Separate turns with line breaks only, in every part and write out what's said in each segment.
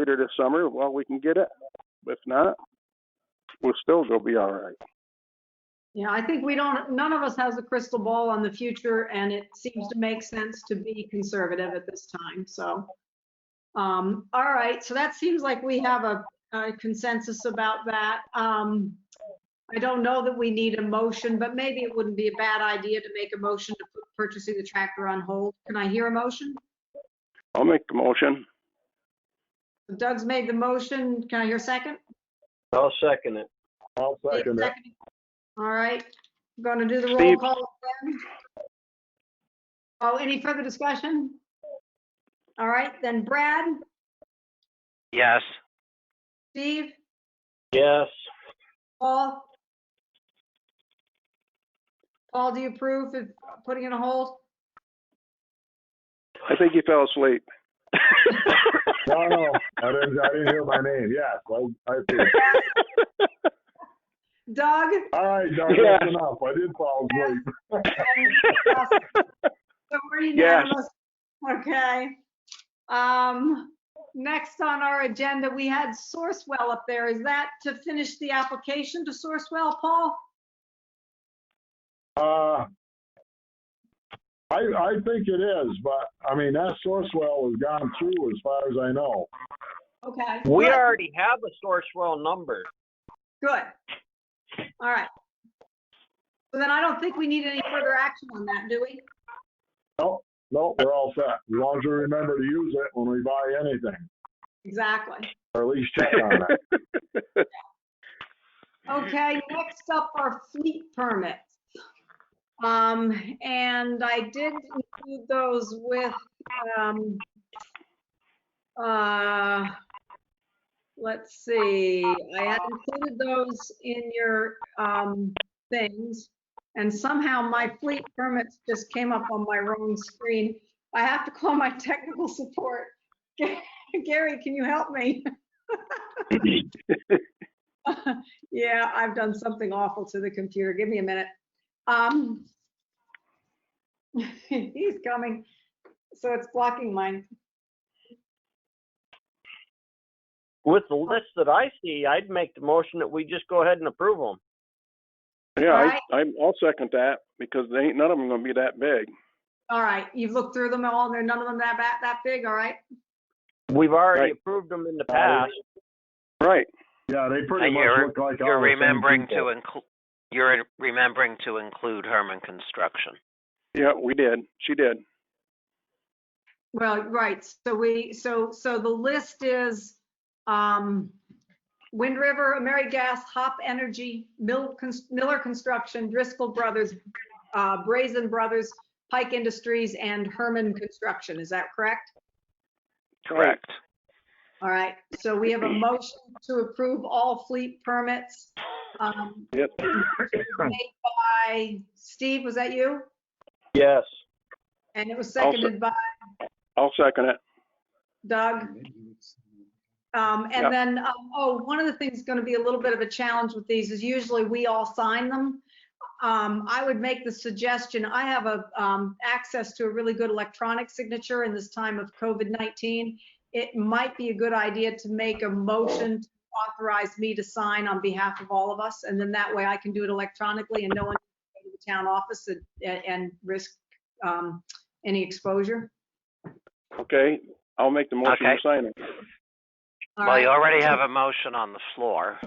later this summer while we can get it. If not, we'll still go be all right.
Yeah, I think we don't, none of us has a crystal ball on the future, and it seems to make sense to be conservative at this time, so. Um, all right, so that seems like we have a a consensus about that. Um, I don't know that we need a motion, but maybe it wouldn't be a bad idea to make a motion to put purchasing the tractor on hold. Can I hear a motion?
I'll make the motion.
Doug's made the motion. Can I hear a second?
I'll second it.
I'll second it.
Second. All right, I'm gonna do the roll
Steve.
call again. Oh, any further discussion? All right, then Brad,
Yes.
Steve,
Yes.
Paul? Paul, do you approve of putting it on hold?
I think he fell asleep.
No, no, I didn't, I didn't hear my name. Yes, I, I did.
Doug?
All right, Doug,
Yeah.
that's enough. I did fall asleep.
So we're
Yes.
unanimous. Okay. Um, next on our agenda, we had Sourcewell up there. Is that to finish the application to Sourcewell, Paul?
Uh, I, I think it is, but, I mean, that Sourcewell has gone through as far as I know.
Okay.
We
good,
already have a Sourcewell number.
Good. All right. So then I don't think we need any further action on that, do we?
No, no, we're all set. As long as we remember to use it when we buy anything,
Exactly.
or at least check on it.
Okay, next up are fleet permits. Um, and I did include those with, um, uh, let's see, I had included those in your, um, things. And somehow my fleet permits just came up on my wrong screen. I have to call my technical support. Gary, can you help me? Yeah, I've done something awful to the computer. Give me a minute. Um, he's coming, so it's blocking mine.
With the list that I see, I'd make the motion that we just go ahead and approve them.
Yeah,
Alright.
I, I'm, I'll second that because they ain't, none of them gonna be that big.
All right, you've looked through them all, and they're none of them that bad, that big, all right?
We've already
Right.
approved them in the past.
Right.
Yeah, they pretty
And
much
you're-
look like all the same
You're remembering
people.
to include, you're remembering to include Herman Construction.
Yeah, we did. She did.
Well, right, so we, so, so the list is, um, Wind River, AmeriGas, Hop Energy, Mill, Cons- Miller Construction, Driscoll Brothers, uh, Brazen Brothers, Pike Industries, and Herman Construction, is that correct?
Correct.
All right, so we have a motion to approve all fleet permits. um,
Yep.
made By Steve, was that you?
Yes.
And it was
I'll se-
seconded by
I'll second it.
Doug. Um,
Yep.
And then, um, oh, one of the things going to be a little bit of a challenge with these is usually we all sign them. Um, I would make the suggestion, I have a, um, access to a really good electronic signature in this time of COVID-19. It might be a good idea to make a motion to authorize me to sign on behalf of all of us. And then that way I can do it electronically and no one can go to the town office and, and risk um, any exposure.
Okay, I'll make the motion to
Okay.
sign it.
All
Well, you
right.
already have a motion on the floor.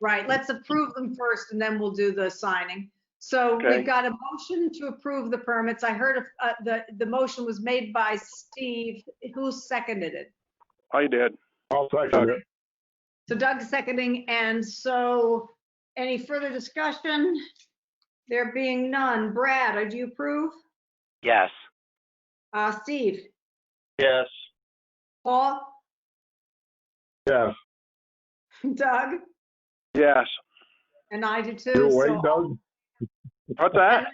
Right, let's approve them first and then we'll do the signing. So
Okay.
we've got a motion to approve the permits. I heard of, uh, the, the motion was made by Steve. Who seconded it?
I did.
I'll second it.
So Doug seconding, and so any further discussion? There being none. Brad, do you approve?
Yes.
Uh, Steve?
Yes.
Paul?
Yes,
Doug?
Yes.
And I do too.
you awake,
so-
Doug?
What's that?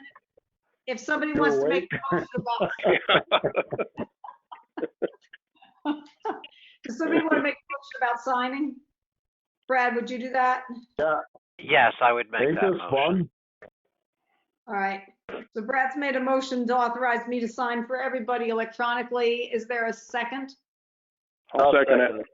If somebody
You're
wants to
awake?
make a motion about. Does somebody want to make a motion about signing? Brad, would you do that?
Yes, I would make
Ain't
that
this
motion.
fun?
All right. So Brad's made a motion to authorize me to sign for everybody electronically. Is there a second?
I'll second it.